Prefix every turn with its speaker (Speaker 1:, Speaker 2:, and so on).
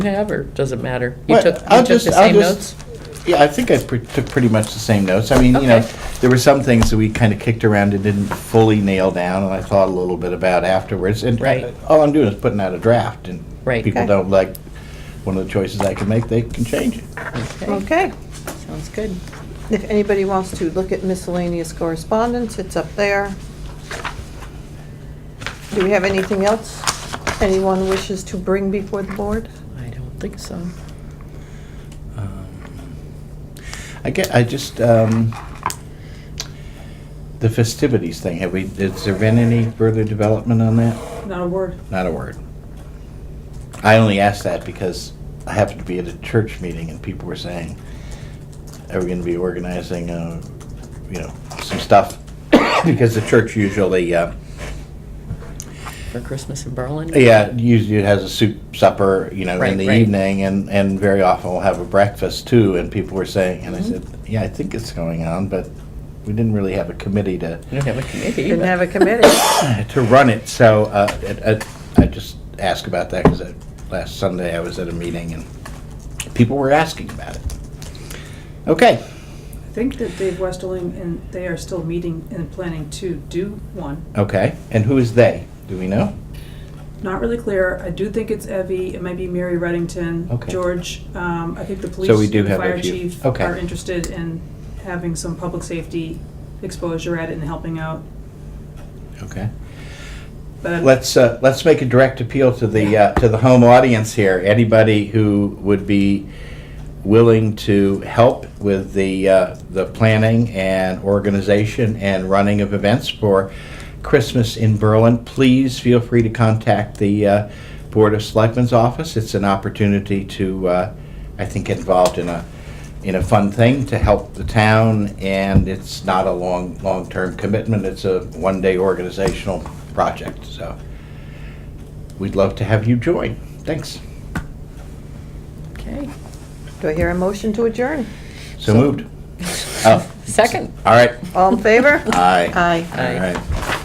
Speaker 1: have, or does it matter? You
Speaker 2: Well,
Speaker 1: took, you
Speaker 2: I'll
Speaker 1: took
Speaker 2: just-
Speaker 1: the
Speaker 2: I'll
Speaker 1: same
Speaker 2: just-
Speaker 1: notes?
Speaker 2: Yeah, I think I pre- took pretty much the same notes. I mean, you know,
Speaker 1: Okay.
Speaker 2: there were some things that we kind of kicked around and didn't fully nail down, and I thought a little bit about afterwards. And
Speaker 1: Right.
Speaker 2: uh, all I'm doing is putting out a draft, and
Speaker 1: Right.
Speaker 2: people
Speaker 3: Okay.
Speaker 2: don't like one of the choices I can make, they can change it.
Speaker 1: Okay,
Speaker 3: Okay.
Speaker 1: sounds good.
Speaker 3: If anybody wants to look at miscellaneous correspondence, it's up there. Do we have anything else anyone wishes to bring before the board?
Speaker 1: I don't think so.
Speaker 2: Um, I get, I just, um, the festivities thing, have we, has there been any further development on that?
Speaker 4: Not a word.
Speaker 2: Not a word. I only asked that because I happened to be at a church meeting and people were saying, are we gonna be organizing, uh, you know, some stuff? Because the church usually, uh,
Speaker 1: For Christmas in Berlin?
Speaker 2: yeah, usually it has a soup supper, you know,
Speaker 1: Right,
Speaker 2: in the
Speaker 1: right.
Speaker 2: evening, and, and very often we'll have a breakfast too. And people were saying,
Speaker 1: Mm-hmm.
Speaker 2: and I said, yeah, I think it's going on, but we didn't really have a committee to
Speaker 1: You don't have a committee.
Speaker 3: Didn't
Speaker 1: but-
Speaker 3: have a committee.
Speaker 2: to run it. So uh, it, it, I just asked about that because last Sunday I was at a meeting and people were asking about it. Okay,
Speaker 4: I think that Dave Westerling and they are still meeting and planning to do one.
Speaker 2: okay, and who is they? Do we know?
Speaker 4: Not really clear. I do think it's Evie. It might be Mary Reddington,
Speaker 2: Okay.
Speaker 4: George. Um, I think the police,
Speaker 2: So we do
Speaker 4: and the
Speaker 2: have a
Speaker 4: fire
Speaker 2: few.
Speaker 4: chief
Speaker 2: Okay.
Speaker 4: are interested in having some public safety exposure at it and helping out.
Speaker 2: Okay.
Speaker 4: But
Speaker 2: Let's, uh, let's make a direct appeal to the, uh, to the home audience here. Anybody who would be willing to help with the, uh, the planning and organization and running of events for Christmas in Berlin, please feel free to contact the uh, Board of Selectmen's office. It's an opportunity to, uh, I think, get involved in a, in a fun thing to help the town, and it's not a long, long-term commitment. It's a one-day organizational project, so we'd love to have you join. Thanks.
Speaker 1: Okay,
Speaker 3: Do I hear a motion to adjourn?
Speaker 2: So moved. Oh,
Speaker 1: second.
Speaker 2: all right.
Speaker 3: All in favor?
Speaker 2: Aye.
Speaker 3: Aye.
Speaker 1: Aye.
Speaker 2: All right.